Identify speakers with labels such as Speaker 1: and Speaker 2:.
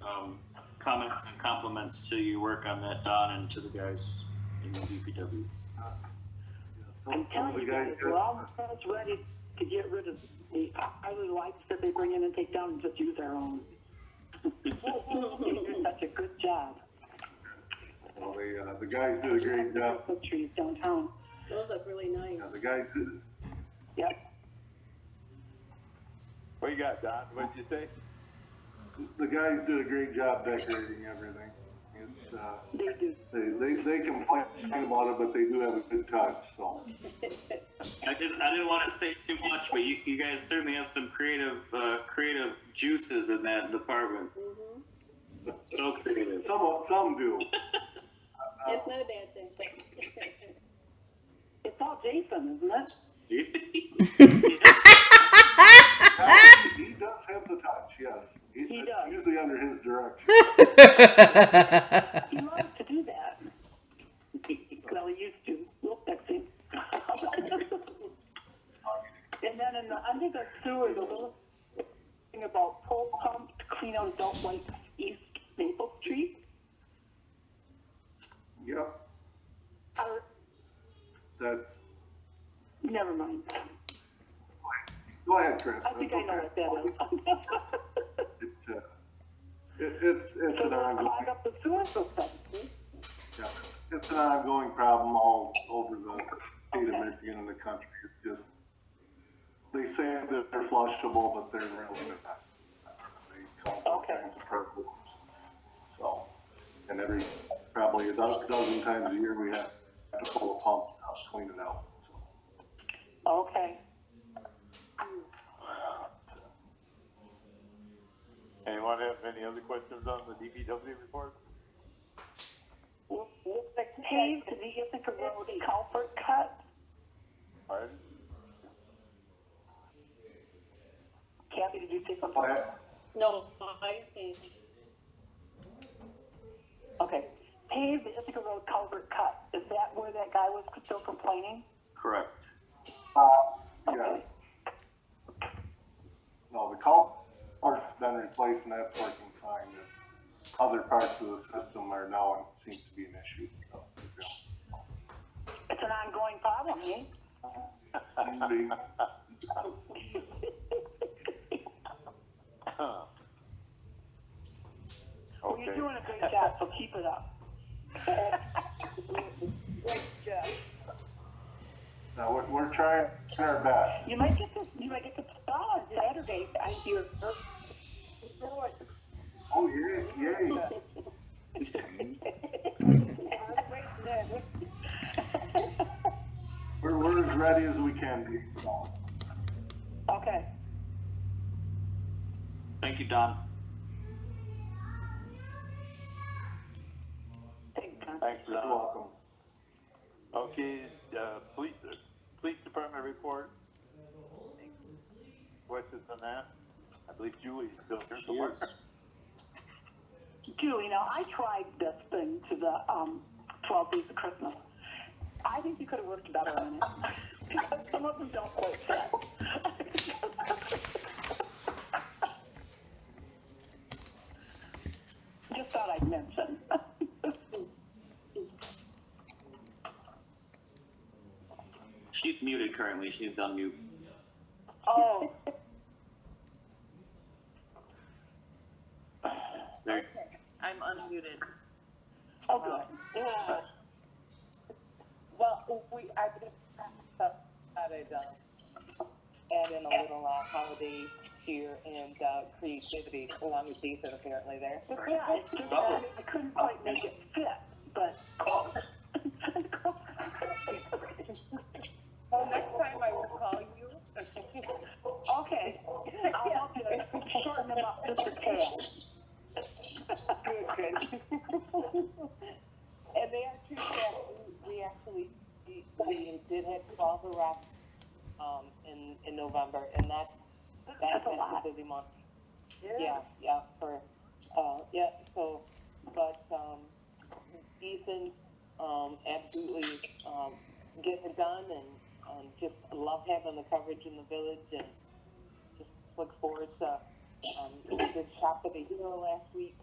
Speaker 1: um, comments and compliments to your work on that, Don, and to the guys in the DPW.
Speaker 2: I'm telling you guys, we're almost ready to get rid of the highly lights that they bring in and take down and just use our own. They do such a good job.
Speaker 3: Well, the, uh, the guys did a great job.
Speaker 2: The trees downtown,
Speaker 4: Those look really
Speaker 3: Yeah,
Speaker 4: nice.
Speaker 3: The guys did,
Speaker 2: yep.
Speaker 5: What you got, Don? What'd you say?
Speaker 3: the guys did a great job decorating everything. It's, uh,
Speaker 2: They do.
Speaker 3: they, they, they complain about it, but they do have a good touch, so.
Speaker 1: I didn't, I didn't want to say too much, but you, you guys certainly have some creative, uh, creative juices in that department.
Speaker 4: Mhm.
Speaker 5: Mm-hmm.
Speaker 1: So creative.
Speaker 3: Some, of- some do.
Speaker 4: It's not a bad thing.
Speaker 2: It's all Jason, isn't it?
Speaker 3: He does have the touch, yes.
Speaker 2: He
Speaker 3: it's
Speaker 2: does.
Speaker 3: Usually under his direction.
Speaker 2: He loves to do that. Well, he used to. We'll fix him. And then in the, under the sewer, the little thing about pole pump to clean out adult like East Maple Street.
Speaker 3: Yep,
Speaker 2: Or,
Speaker 3: that's,
Speaker 2: never mind.
Speaker 3: go ahead, Chris.
Speaker 2: I think I know what that is.
Speaker 3: It, uh, it, it's, it's
Speaker 2: So
Speaker 3: an
Speaker 2: they'll
Speaker 3: ongoing,
Speaker 2: clog up the sewer system.
Speaker 3: yeah, it's an ongoing problem all over the state of Michigan and the country. It's just, they say that they're flushable, but they're really not. They cause all
Speaker 2: Okay.
Speaker 3: kinds of problems. So, and every, probably a dozen, dozen times a year, we have to pull a pump out, clean it out, so.
Speaker 2: Okay.
Speaker 5: Anyone have any other questions on the DPW report?
Speaker 2: The paved vehicle road culvert cut,
Speaker 5: Pardon?
Speaker 2: Kathy, did you say something?
Speaker 3: Go ahead.
Speaker 4: No, I didn't see anything.
Speaker 2: Okay, paved Ithaca Road culvert cut, is that where that guy was still complaining?
Speaker 1: Correct.
Speaker 3: Yes. uh, No, the culvert's been replaced and that's working fine. It's, other parts of the system are now, it seems to be an issue. so,
Speaker 2: It's an ongoing problem, eh?
Speaker 3: yeah. Seems to be.
Speaker 2: Well, you're
Speaker 5: Okay,
Speaker 2: doing a great job, so keep it up. Great job.
Speaker 3: Now, we're, we're trying our best.
Speaker 2: You might get this, you might get the star on Saturday, I hear.
Speaker 3: Oh, yay, yay. We're, we're as ready as we can be.
Speaker 2: Okay,
Speaker 1: Thank you, Don.
Speaker 2: thanks, Don.
Speaker 5: thanks,
Speaker 3: You're
Speaker 5: Don.
Speaker 3: welcome.
Speaker 5: Okay, uh, police, police department report. Questions on that? I believe Julie's still here somewhere.
Speaker 1: Yes.
Speaker 2: Julie, now I tried this thing to the um, 12 days of Christmas. I think you could have worked better on it. because some of them don't quite fit. Just thought I'd mention.
Speaker 1: She's muted currently. She's on mute.
Speaker 2: oh,
Speaker 1: There.
Speaker 6: I'm unmuted.
Speaker 2: oh, good. Yeah.
Speaker 6: Well, we, I just
Speaker 2: uh,
Speaker 6: started, um, adding a little, uh, holiday here and, uh, creativity along with these that are apparently there.
Speaker 2: But yeah, I, just, I couldn't quite make it fit, but close.
Speaker 6: Well, next time I will call you.
Speaker 2: okay. I'll help you shorten them up just a tad.
Speaker 6: Good, good. And they are true that we, we actually, we, we did have twelve arrests, um, in, in November, and that's, that's
Speaker 2: That's a
Speaker 6: been a
Speaker 2: lot.
Speaker 6: busy month. Yeah, yeah, for, uh, yeah, so, but, um, Ethan, um, absolutely, um, getting it done and, um, just love having the coverage in the village and just look forward to, um, we did Shop of the Hero last week,